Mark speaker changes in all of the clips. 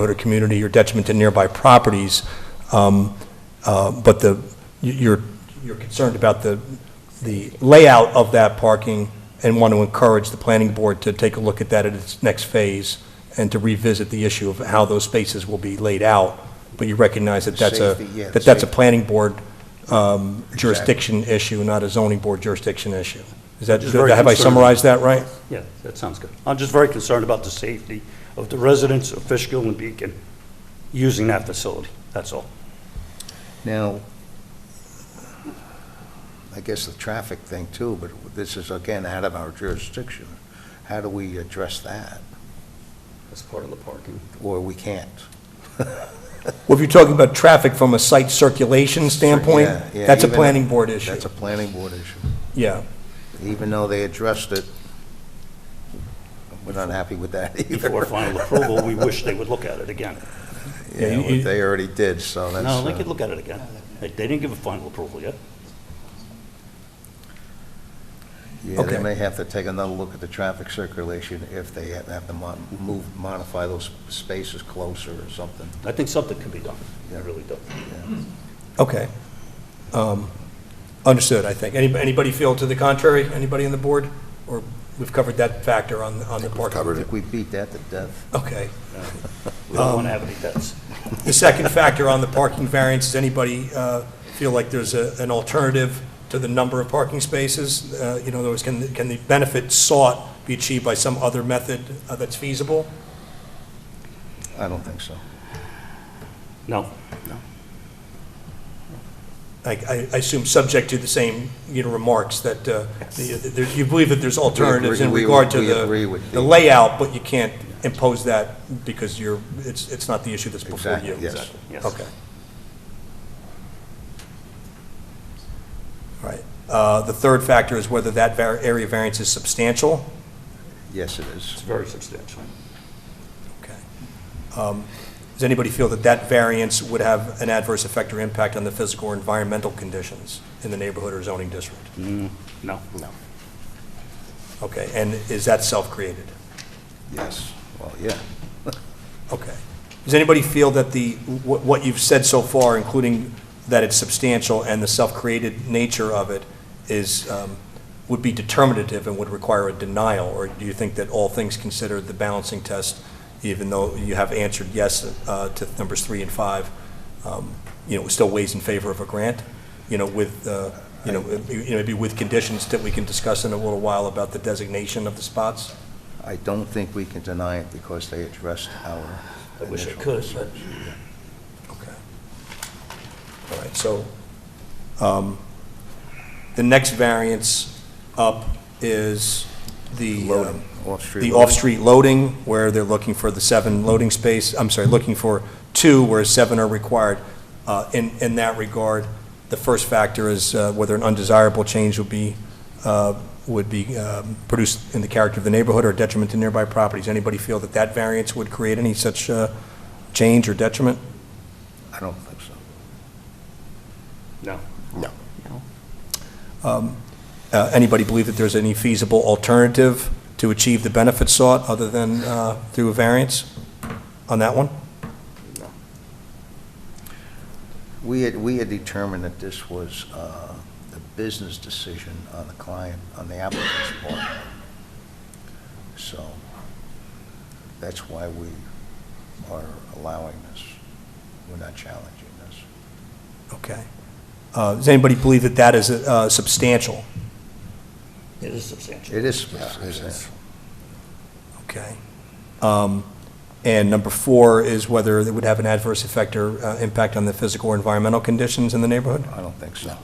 Speaker 1: neighborhood or community or detriment to nearby properties, um, uh, but the, you- you're, you're concerned about the, the layout of that parking and want to encourage the planning board to take a look at that at its next phase and to revisit the issue of how those spaces will be laid out, but you recognize that that's a,
Speaker 2: Safety, yeah,
Speaker 1: that that's a
Speaker 2: safety.
Speaker 1: planning board um, jurisdiction issue, not a zoning board jurisdiction issue. Is that,
Speaker 3: Which is very
Speaker 1: have I
Speaker 3: concerning.
Speaker 1: summarized that right?
Speaker 3: Yeah, that sounds good. I'm just very concerned about the safety of the residents of Fishkill and Beacon using that facility, that's all.
Speaker 2: Now, I guess the traffic thing too, but this is again out of our jurisdiction. How do we address that?
Speaker 3: That's part of the parking.
Speaker 2: Or we can't?
Speaker 1: Well, if you're talking about traffic from a site circulation standpoint,
Speaker 2: Yeah, yeah,
Speaker 1: that's a
Speaker 2: even-
Speaker 1: planning board issue.
Speaker 2: That's a planning board issue.
Speaker 1: Yeah.
Speaker 2: Even though they addressed it, we're not happy with that either.
Speaker 3: Before final approval, we wish they would look at it again.
Speaker 2: You know,
Speaker 1: Yeah, you-
Speaker 2: They already did, so that's.
Speaker 3: No, they
Speaker 2: uh,
Speaker 3: could look at it again. They they didn't give a final approval yet.
Speaker 2: Yeah, they
Speaker 1: Okay.
Speaker 2: may have to take another look at the traffic circulation if they have- have to mo- move, modify those spaces closer or something.
Speaker 3: I think something could be done, I
Speaker 2: Yeah.
Speaker 3: really do.
Speaker 1: Okay. Um, Understood, I think. Any- Anybody feel to the contrary? Anybody on the board? Or we've covered that factor on, on the parking?
Speaker 2: I think we beat that to death.
Speaker 1: Okay.
Speaker 3: We don't want to
Speaker 2: Um,
Speaker 3: have any debts.
Speaker 1: The second factor on the parking variance, does anybody uh, feel like there's a- an alternative to the number of parking spaces? Uh, You know, there was, can, can the benefit sought be achieved by some other method uh, that's feasible?
Speaker 2: I don't think so.
Speaker 3: No, no.
Speaker 1: I- I I assume subject to the same, you know, remarks that uh, the- there- you believe that there's alternatives in
Speaker 2: We agree-
Speaker 1: regard to
Speaker 2: we agree
Speaker 1: the
Speaker 2: with
Speaker 1: the
Speaker 2: the-
Speaker 1: layout, but you can't impose that because you're, it's it's not the issue that's before
Speaker 2: Exactly,
Speaker 1: you.
Speaker 2: yes.
Speaker 1: Exactly,
Speaker 3: Yes.
Speaker 1: Okay. All right. Uh, The third factor is whether that var- area variance is substantial.
Speaker 2: Yes, it is.
Speaker 3: It's very substantial.
Speaker 1: Okay. Um, Does anybody feel that that variance would have an adverse effect or impact on the physical or environmental conditions in the neighborhood or zoning district?
Speaker 3: No. No.
Speaker 1: Okay, and is that self-created?
Speaker 2: Yes. Well, yeah.
Speaker 1: Okay. Does anybody feel that the, what what you've said so far, including that it's substantial and the self-created nature of it, is, um, would be determinative and would require a denial? Or do you think that all things considered, the balancing test, even though you have answered yes uh, to numbers three and five, um, you know, still weighs in favor of a grant? You know, with, uh, you know, you know, maybe with conditions that we can discuss in a little while about the designation of the spots?
Speaker 2: I don't think we can deny it because they addressed our
Speaker 3: I wish I
Speaker 2: initial
Speaker 3: could, but
Speaker 2: concerns.
Speaker 1: Okay. All right, so, um, the next variance up is the, um,
Speaker 2: Loading, off-street.
Speaker 1: the
Speaker 2: loading.
Speaker 1: off-street loading, where they're looking for the seven loading space, I'm sorry, looking for two, where seven are required. Uh, In, in that regard, the first factor is uh, whether an undesirable change would be, uh, would be um, produced in the character of the neighborhood or detriment to nearby properties. Anybody feel that that variance would create any such uh, change or detriment?
Speaker 2: I don't think so.
Speaker 3: no.
Speaker 1: Uh, Anybody believe that there's any feasible alternative to achieve the benefits sought other than uh, through a variance on that one?
Speaker 2: We had, we had determined that this was uh, a business decision on the client, on the applicant's part. So that's why we are allowing this. We're not challenging this.
Speaker 1: Okay. Uh, Does anybody believe that that is uh, substantial?
Speaker 3: It is substantial.
Speaker 2: It is
Speaker 4: Yeah, it is.
Speaker 2: substantial.
Speaker 1: Okay. Um, And number four is whether it would have an adverse effect or uh, impact on the physical or environmental conditions in the neighborhood?
Speaker 2: I don't think so.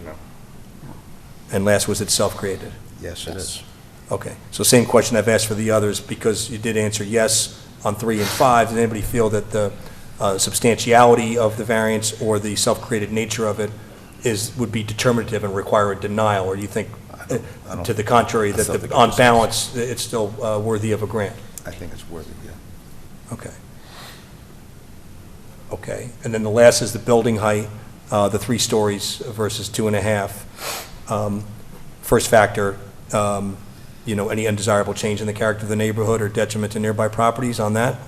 Speaker 1: And last was it self-created?
Speaker 2: Yes, it is.
Speaker 1: Okay, so same question I've asked for the others, because you did answer yes on three and five. Does anybody feel that the uh, substantiality of the variance or the self-created nature of it is, would be determinative and require a denial? Or do you think,
Speaker 2: I
Speaker 1: uh,
Speaker 2: don't- I don't-
Speaker 1: to the contrary,
Speaker 2: I
Speaker 1: that
Speaker 2: still
Speaker 1: the-
Speaker 2: think it
Speaker 1: on
Speaker 2: was-
Speaker 1: balance, it's still uh, worthy of a grant?
Speaker 2: I think it's worthy, yeah.
Speaker 1: Okay. Okay, and then the last is the building height, uh, the three stories versus two and a half. Um, First factor, um, you know, any undesirable change in the character of the neighborhood or detriment to nearby properties on that?